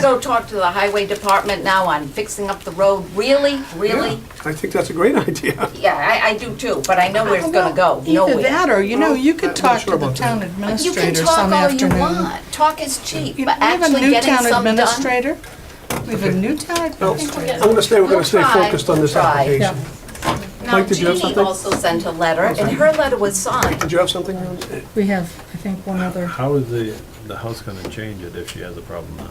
go talk to the highway department now on fixing up the road, really, really? I think that's a great idea. Yeah, I, I do too, but I know where it's gonna go, Either nowhere. that, or, you know, you I'm could not talk sure to the about town that. You can administrator talk some all you afternoon. want, talk is cheap, You but know, actually We have a getting new some town done. administrator. We have a new town I'm administrator. gonna stay, we're We'll gonna stay try, focused on this we'll try. Yeah. application. Now, Mike, did you have Jeannie something? also sent a letter, and her letter was signed. Did you have something? Ron? We have, I think, one other. How is the, the house gonna change it if she has a problem now?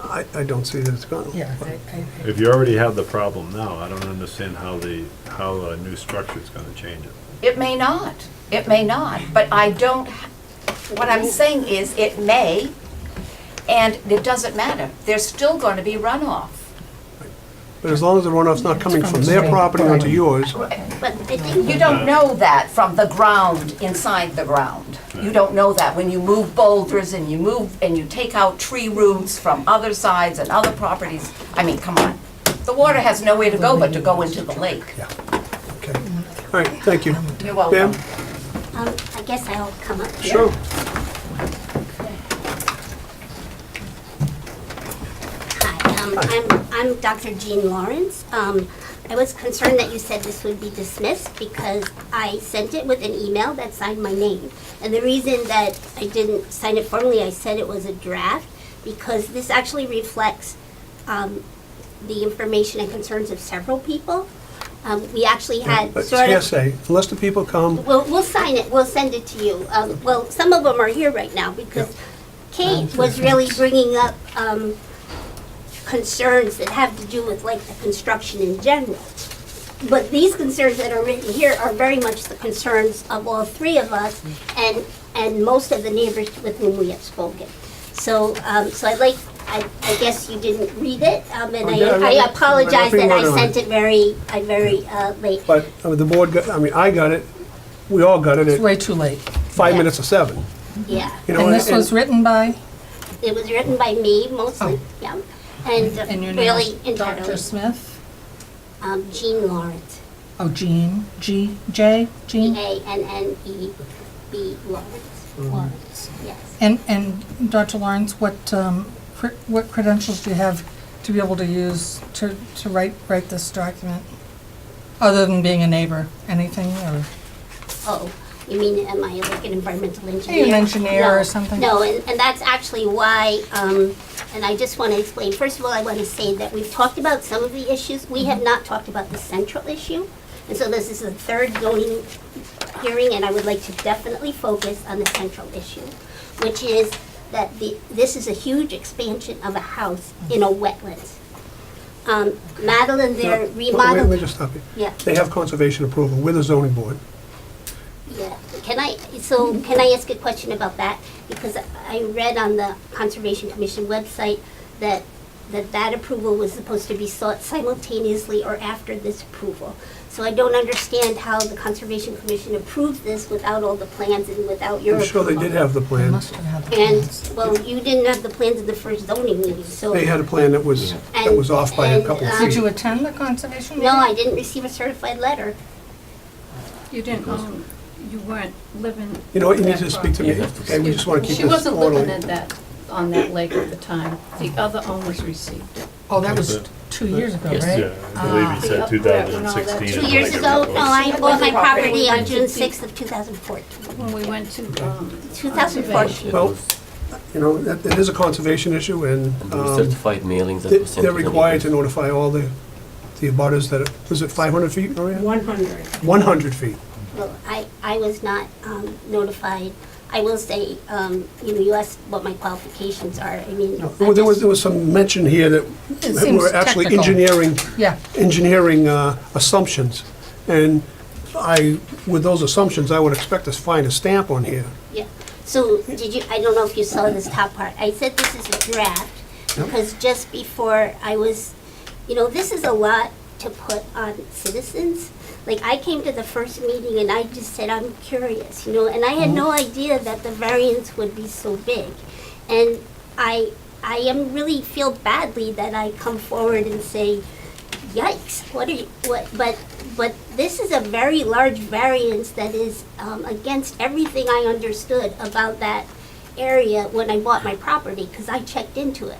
I, I don't see that it's gone. Yeah, I- I- If you already have the problem now, I don't understand how the, how a new structure's gonna change it. It may not, it may not, but I don't, what I'm saying is, it may, and it doesn't matter. There's still gonna be runoff. But as long as the runoff's not coming from their property onto yours, But You don't know that from the ground, inside the ground. You don't know that when you move boulders and you move, and you take out tree roots from other sides and other properties. I mean, come on. The water has nowhere to go but to go into the lake. okay. All right, thank you. You're Pam? welcome. Um, I guess I'll come up here. Sure. Hi, um, I'm, I'm Dr. Jean Lawrence. Um, I was concerned that you said this would be dismissed because I sent it with an email that signed my name. And the reason that I didn't sign it formally, I said it was a draft, because this actually reflects, um, the information and concerns of several people. Um, we actually had Uh, But It's sort of. hearsay, unless the people come, We'll, we'll sign it, we'll send it to you. Um, well, some of them are here right now because Kate was really bringing up, um, concerns that have to do with like the construction in general. But these concerns that are written here are very much the concerns of all three of us and, and most of the neighbors with whom we have spoken. So, um, so I'd like, I, I guess you didn't read it, um, and I did, Oh, I read I, it. I apologize that I Nothing wrong. sent it very, I very, uh, late. but uh, the board got, I mean, I got it, we all got it It's at way too late. five minutes of seven. Yeah. You know, And this was written by, It was written by me mostly, yeah, and uh, Oh. and your name really is Dr. entirely Smith? um, Jean Lawrence, Oh, Jean, G, J, G Jean? A N N E B Lawrence, Lawrence, yes. And, and Dr. Lawrence, what, um, cre- what credentials do you have to be able to use to, to write, write this document? Other than being a neighbor, anything, or? Oh, you mean am I like an environmental engineer? an engineer or No, something. No, and, and that's actually why. Um, and I just want to explain. First of all, I want to say that we've talked about some of the issues. We have not talked about the central issue, and so this is the third zoning hearing, and I would like to definitely focus on the central issue, which is that the this is a huge expansion of a house in a wetland. Um, Madeline, they're Wait, Let me remodeling. just stop you. Yeah. They have conservation approval, we're the zoning board. Yeah, can I, so can I ask a question about that? Because I read on the Conservation Commission website that, that that approval was supposed to be sought simultaneously or after this approval. So I don't understand how the Conservation Commission approved this without all the plans and without your I'm sure approval. they did have the I plan. must have had the plans. And, well, you didn't have the plans at the first zoning meeting, so. They had a plan that was, that was off by a couple of And- Did feet. you attend the conservation meeting? um, No, I didn't receive a certified letter. You didn't own, you weren't living. You know what, you at need to that speak to me, Yeah, that's- okay, we just wanna keep She this wasn't living orderly. at that, on that lake at the time. The other owners received it. Oh, that was two years ago, right? Yeah, I believe Uh, he said Ah. two thousand and sixteen. Two years ago, no, I bought my property on June sixth of two thousand fourteen. When we went to, um, Two thousand fourteen. Well, you know, that, that is a conservation issue, and, And there were um, certified mailings that they- were sent to they're the required to neighbors. notify all the, the abutters that, are- was it five hundred feet, Maria? One hundred. One hundred feet. Well, I, I was not um, notified. I will say, um, you know, you asked what my qualifications are. I mean, Well, I there was, just, there was some mention here that that seems we're actually technical. engineering, Yeah, engineering uh, assumptions, and I, with those assumptions, I would expect to find a stamp on here. yeah. So did you, I don't know if you saw this top part. I said this is a draft because just before I was, you know, this is a lot to put on citizens. Like, I came to the first meeting and I just said, I'm curious, you know, and I had Mm-hmm. no idea that the variance would be so big. And I, I am really feel badly that I come forward and say, yikes what are you what but but this is a very large variance that is um, against everything i understood about that area when i bought my property because i checked into it